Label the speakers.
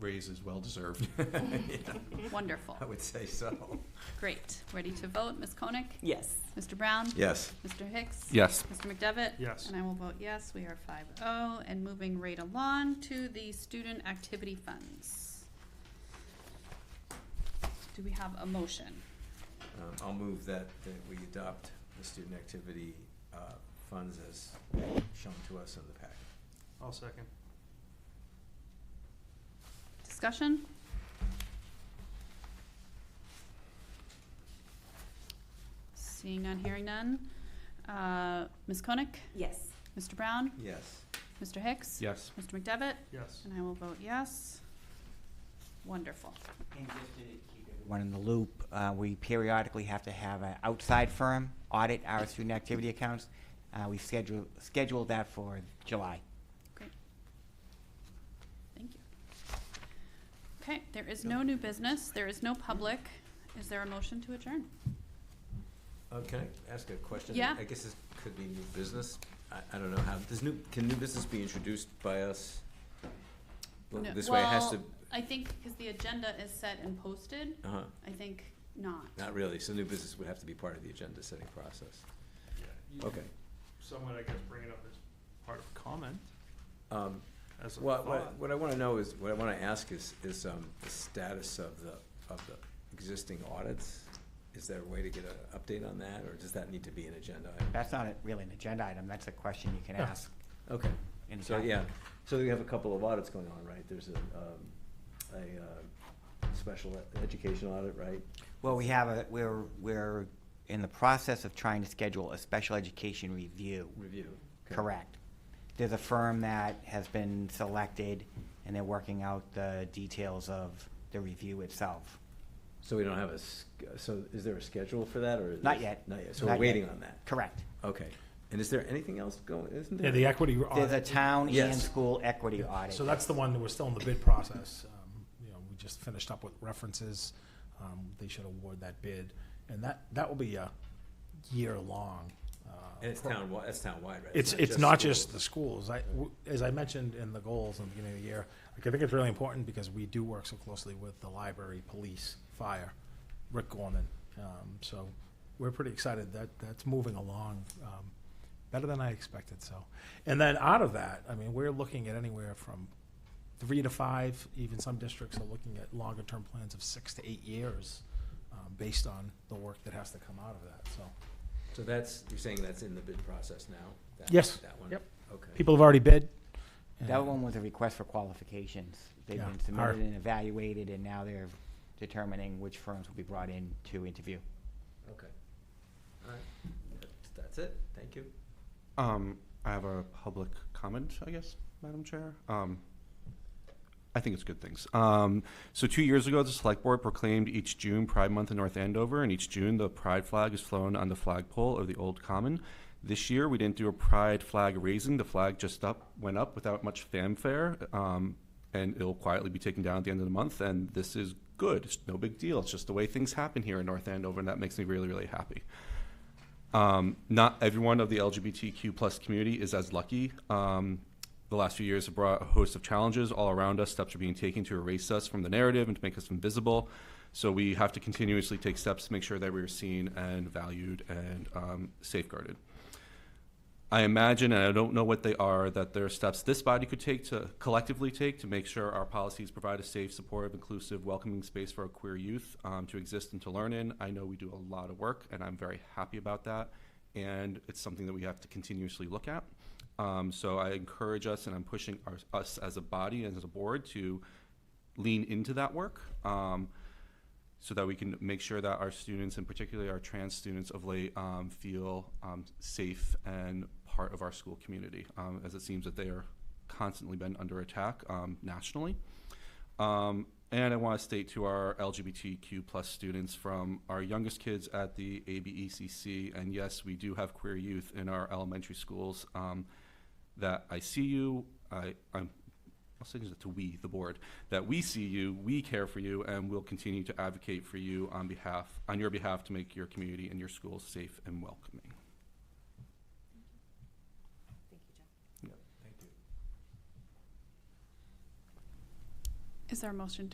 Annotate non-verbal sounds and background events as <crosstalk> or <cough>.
Speaker 1: raise is well deserved.
Speaker 2: <laughs> Wonderful.
Speaker 3: I would say so.
Speaker 2: Great. Ready to vote? Ms. Koenig?
Speaker 4: Yes.
Speaker 2: Mr. Brown?
Speaker 3: Yes.
Speaker 2: Mr. Hicks?
Speaker 5: Yes.
Speaker 2: Mr. McDevitt?
Speaker 6: Yes.
Speaker 2: And I will vote yes. We are 5-0. And moving right along to the student activity funds. Do we have a motion?
Speaker 3: Um, I'll move that, that we adopt the student activity, uh, funds as shown to us in the packet.
Speaker 6: I'll second.
Speaker 2: Discussion? Seeing none, hearing none. Uh, Ms. Koenig?
Speaker 4: Yes.
Speaker 2: Mr. Brown?
Speaker 3: Yes.
Speaker 2: Mr. Hicks?
Speaker 5: Yes.
Speaker 2: Mr. McDevitt?
Speaker 6: Yes.
Speaker 2: And I will vote yes. Wonderful.
Speaker 7: And just to keep everyone in the loop, uh, we periodically have to have an outside firm audit our student activity accounts. Uh, We've scheduled, scheduled that for July.
Speaker 2: Great. Thank you. Okay, there is no new business, there is no public. Is there a motion to adjourn?
Speaker 3: Uh, can I ask a question?
Speaker 2: Yeah.
Speaker 3: I guess this could be new business. I, I don't know how, does new, can new business be introduced by us? Well,
Speaker 2: No-
Speaker 3: This way it has
Speaker 2: well,
Speaker 3: to,
Speaker 2: I think because the agenda is set and posted,
Speaker 3: uh-huh,
Speaker 2: I think not.
Speaker 3: not really. So new business would have to be part of the agenda setting process. Okay.
Speaker 6: Someone, I guess, bring it up as part of comment,
Speaker 3: Um,
Speaker 6: as a
Speaker 3: What,
Speaker 6: thought.
Speaker 3: what, what I wanna know is, what I wanna ask is, is, um, the status of the, of the existing audits? Is there a way to get an update on that, or does that need to be an agenda item?
Speaker 7: That's not a- really an agenda item, that's a question you can
Speaker 6: Yeah.
Speaker 7: ask.
Speaker 3: Okay,
Speaker 7: in the
Speaker 3: so,
Speaker 7: packet.
Speaker 3: yeah, so we have a couple of audits going on, right? There's a, um, a, uh, special e- education audit, right?
Speaker 7: Well, we have a, we're, we're in the process of trying to schedule a special education review.
Speaker 3: Review. Okay.
Speaker 7: Correct. There's a firm that has been selected, and they're working out the details of the review itself.
Speaker 3: So we don't have a, s- so is there a schedule for that, or? is-
Speaker 7: Not yet.
Speaker 3: Not yet, so we're
Speaker 7: Not yet.
Speaker 3: waiting on that?
Speaker 7: Correct.
Speaker 3: Okay, and is there anything else going, isn't there?
Speaker 8: Yeah, the equity
Speaker 7: There's a
Speaker 8: audit.
Speaker 7: town and
Speaker 3: Yes.
Speaker 7: school equity
Speaker 8: Yeah,
Speaker 7: audit.
Speaker 8: So that's the one that we're still in the bid process. Um, You know, we just finished up with references. Um, They should award that bid. And that, that will be a year-long. uh,
Speaker 3: And it's
Speaker 8: pro-
Speaker 3: town, that's town-wide, right?
Speaker 8: It's, it's not just
Speaker 3: schools.
Speaker 8: the schools. I, w- as I mentioned in the goals in the beginning of the year, like, I think it's really important because we do work so closely with the library, police, fire, Rick Gorman. Um, So we're pretty excited that, that's moving along um, better than I expected, so. And then out of that, I mean, we're looking at anywhere from three to five, even some districts are looking at longer-term plans of six to eight years um, based on the work that has to come out of that, so.
Speaker 3: So that's, you're saying that's in the bid process now? that-
Speaker 8: Yes.
Speaker 3: That one?
Speaker 8: Yep.
Speaker 3: Okay.
Speaker 8: People have already bid.
Speaker 7: That one was a request for qualifications. They've
Speaker 8: Yeah,
Speaker 7: been
Speaker 8: our-
Speaker 7: submitted and evaluated, and now they're determining which firms will be brought in to interview.
Speaker 3: Okay. All right. That's- That's it. Thank you.
Speaker 5: Um, I have a public comment, I guess, Madam Chair. Um, I think it's good things. Um, so two years ago, the select board proclaimed each June Pride Month in North Andover, and each June the Pride flag is flown on the flagpole of the old common. This year, we didn't do a Pride flag raising. The flag just up went up without much fanfare, um, and it'll quietly be taken down at the end of the month. And this is good. It's no big deal. It's just the way things happen here in North Andover, and that makes me really, really happy um, not everyone of the LGBTQ plus community is as lucky. Um, the last few years have brought a host of challenges all around us. Steps are being taken to erase us from the narrative and to make us invisible. So we have to continuously take steps to make sure that we are seen and valued and um, safeguarded. I imagine, and I don't know what they are, that there are steps this body could take to collectively take to make sure our policies provide a safe, supportive, inclusive, welcoming space for our queer youth um, to exist and to learn in. I know we do a lot of work, and I'm very happy about that. And it's something that we have to continuously look at. Um, so I encourage us, and I'm pushing our, us as a body and as a board to lean into that work. Um, so that we can make sure that our students, and particularly our trans students of late, um, feel um, safe and part of our school community, um, as it seems that they are constantly been under attack um, nationally. Um, and I want to state to our LGBTQ plus students from our youngest kids at the ABECC, and yes, we do have queer youth in our elementary schools, um, that I see you, I, I'm I'll say this to we, the board, that we see you, we care for you, and we'll continue to advocate for you on behalf, on your behalf to make your community and your schools safe and welcoming.
Speaker 3: Thank you.
Speaker 2: Is there a motion to